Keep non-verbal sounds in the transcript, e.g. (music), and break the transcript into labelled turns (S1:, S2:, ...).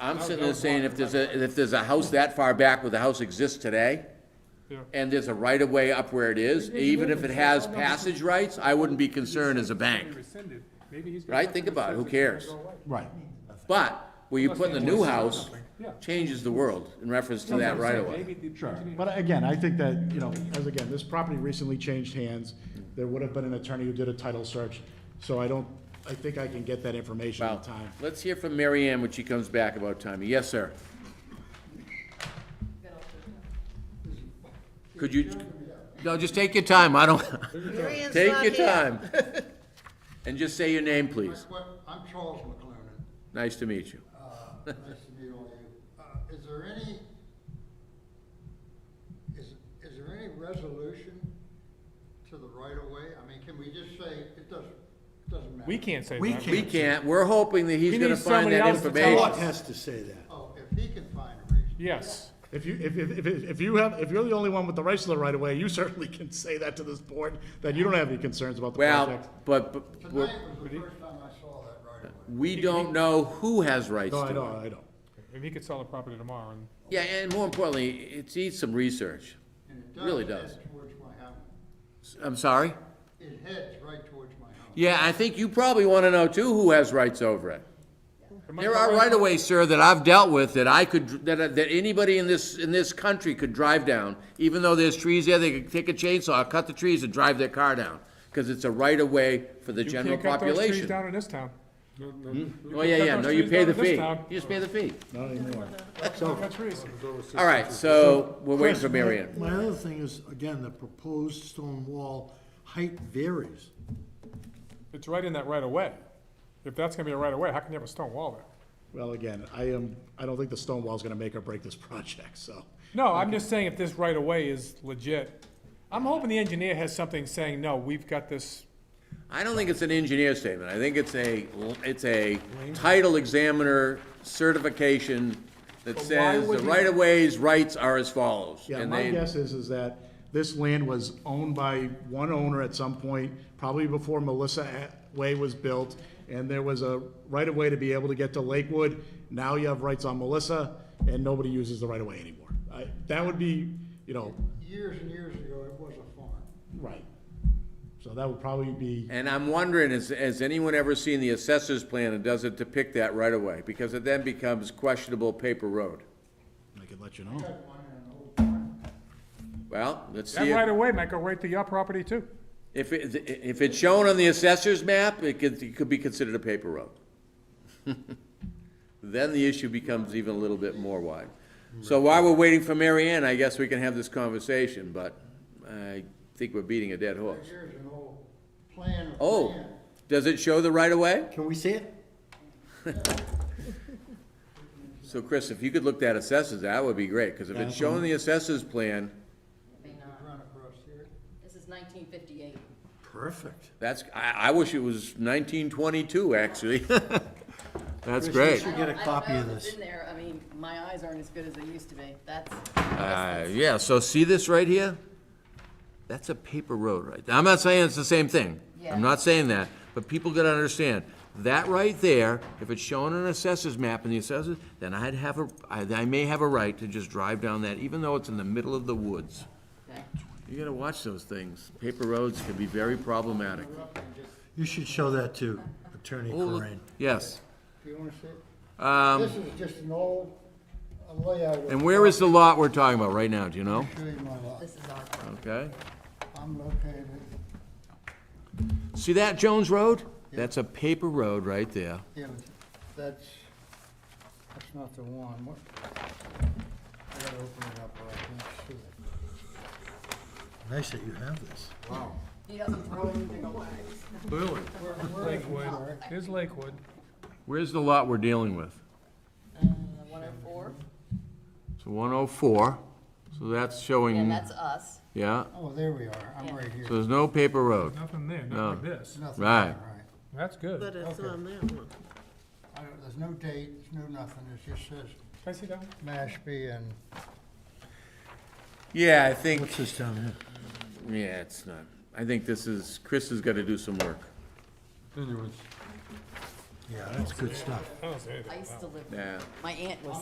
S1: I'm sitting there saying if there's a, if there's a house that far back where the house exists today,
S2: Yeah.
S1: and there's a right of way up where it is, even if it has passage rights, I wouldn't be concerned as a bank,
S2: Rescinded. Maybe he's gonna
S1: right?
S2: have
S1: Think
S2: to
S1: about it, who
S2: rescind it's gonna
S1: cares?
S2: go away.
S3: Right.
S1: But where you put in the new house changes the world in reference to that
S2: That's what
S1: right
S2: I'm
S1: of
S2: saying.
S1: way.
S2: Maybe the
S3: Sure,
S2: engineer-
S3: but again, I think that, you know, as again, this property recently changed hands. There would have been an attorney who did a title search, so I don't, I think I can get that information in
S1: Well,
S3: time.
S1: let's hear from Mary Ann when she comes back about timing. Yes, sir. Could you, no, just take your time. I don't, (laughs)
S4: Marion's
S1: take
S4: not
S1: your
S4: here.
S1: time. And just say your name, please.
S5: What- I'm Charles McLernan.
S1: (laughs) Nice to meet you.
S5: Uh, Nice to meet all of you. Uh, Is there any, is, is there any resolution to the right-of-way? I mean, can we just say, it doesn't, it doesn't matter?
S2: We can't say
S6: We
S2: that.
S1: We can't, we're hoping that he's
S2: He
S1: gonna
S2: needs
S1: find
S2: somebody
S1: that
S2: else to tell
S1: information.
S6: What has to say that?
S5: Oh, if he can find a reason.
S2: Yes.
S3: If you, if, if, if- if you have, if you're the only one with the rights to the right of way, you (laughs) certainly can say that to this board, that you don't have any concerns about the
S1: Well,
S3: project.
S1: but, but,
S5: Tonight
S1: we're-
S5: was the first time I saw that right-of-way.
S1: we don't know who has rights
S3: No, I
S1: to it.
S3: don't, I don't.
S2: If he could sell the property tomorrow and
S1: Yeah, and more importantly, it needs some research.
S5: And it
S1: Really does.
S5: does head towards my house.
S1: I'm sorry?
S5: It heads right towards my house.
S1: Yeah, I think you probably wanna know too who has rights over it.
S2: Am I
S1: There are
S2: correct?
S1: right of ways, sir, that I've dealt with that I could, that, that anybody in this, in this country could drive down. Even though there's trees there, they could take a chainsaw, cut the trees and drive their car down. Cause it's a right of way for the
S2: You
S1: general
S2: can't cut those trees
S1: population.
S2: Down in this town.
S1: Oh, yeah,
S2: cut
S1: yeah,
S2: those
S1: no, you
S2: trees
S1: pay
S2: down
S1: the
S2: in this
S1: fee.
S2: town.
S1: You just pay the fee.
S3: Not anymore.
S2: Cut trees.
S1: All right, so we're waiting for
S6: Chris, my-
S1: Mary Ann.
S6: My other thing is, again, the proposed stone wall height varies.
S2: It's right in that right of way. If that's gonna be a right of way, how can you have a stone wall there?
S3: Well, again, I am, I don't think the stone wall's gonna make or break this (laughs) project, so.
S2: No, I'm just saying if this right of way is legit, I'm hoping the engineer has something saying, no, we've got this.
S1: I don't think it's an engineer statement. I think it's a, it's a title examiner certification that
S2: But why
S1: says the
S2: would you-
S1: right-of-ways rights are as follows.
S3: Yeah,
S1: and
S3: my
S1: they-
S3: guess is, is that this land was owned by one owner at some point, probably before Melissa A- Way was built, and there was a right-of-way to be able to get to Lakewood. Now you have rights on Melissa, and nobody uses the right-of-way anymore. I- That would be, you know,
S5: Years and years ago, it was a farm.
S3: right. So that would probably be,
S1: And I'm wondering, has, has anyone ever seen the assessor's plan and does it depict that right-of-way? Because it then becomes questionable paper road.
S3: I could let you know.
S1: Well, let's
S2: That
S1: see
S2: right
S1: if,
S2: of way might go right to your property too.
S1: if, it- if it's shown on the assessor's map, it could, it could be considered a paper road. (laughs) Then the issue becomes even a little bit more wide. So while we're waiting for Mary Ann, I guess we can have this conversation, but I think we're beating a dead horse.
S5: Here's an old plan of
S1: Oh,
S5: land.
S1: does it show the right-of-way?
S6: Can we see it?
S1: So Chris, if you could look that assessors, that would be great, because if it's shown in the assessor's plan,
S4: May not.
S5: Run across here.
S4: This is nineteen fifty-eight.
S6: Perfect.
S1: That's, I, I wish it was nineteen twenty-two, actually. (laughs) That's
S6: Chris,
S1: great.
S6: you- get a copy of this.
S4: in there, I mean, my eyes aren't as good as they used to be, that's.
S1: Uh, yeah, so see this right here? That's a paper road right there. I'm not saying it's the same thing.
S4: Yeah.
S1: I'm not saying that, but people gotta understand, that right there, if it's shown on an assessor's map in the assessors, then I'd have a, I, I may have a right to just drive down that, even though it's in the middle of the woods.
S4: Okay.
S1: You gotta watch those things. Paper roads can be very problematic.
S6: You should show that to Attorney Corain.
S1: Yes.
S5: Do you wanna see it? This is just an old uh, layout. of-
S1: Um, And where is the lot we're talking about right now, do you know?
S5: Show you my lot.
S4: This is our problem.
S1: Okay.
S5: I'm located,
S1: See that Jones Road? That's a paper road right there.
S5: yeah, but that's, that's not the one. What? I gotta open it up, or I can't see it.
S6: Nice that you have this.
S5: Wow.
S4: He doesn't throw anything away.
S1: Clearly.
S5: Where, where is it? Sorry.
S2: Here's Lakewood.
S1: Where's the lot we're dealing with?
S4: Uh, one oh four,
S1: So 104, so that's
S4: and
S1: showing,
S4: that's us.
S1: yeah,
S5: Oh, there we are. I'm right here.
S1: so there's no paper road.
S2: Nothing there,
S1: No.
S2: not like this.
S5: Nothing.
S1: Right.
S2: That's good. Can
S5: it's on that one. There's no date, there's no nothing. It just says
S2: I see that one?
S5: Mashpee and
S1: Yeah, I think,
S6: What's this down here?
S1: yeah, it's not, I think this is, Chris has got to do some work.
S7: Yeah, that's good stuff.
S8: I don't say anything.
S2: 嗯
S6: I used to live,
S4: Yeah.
S6: my aunt was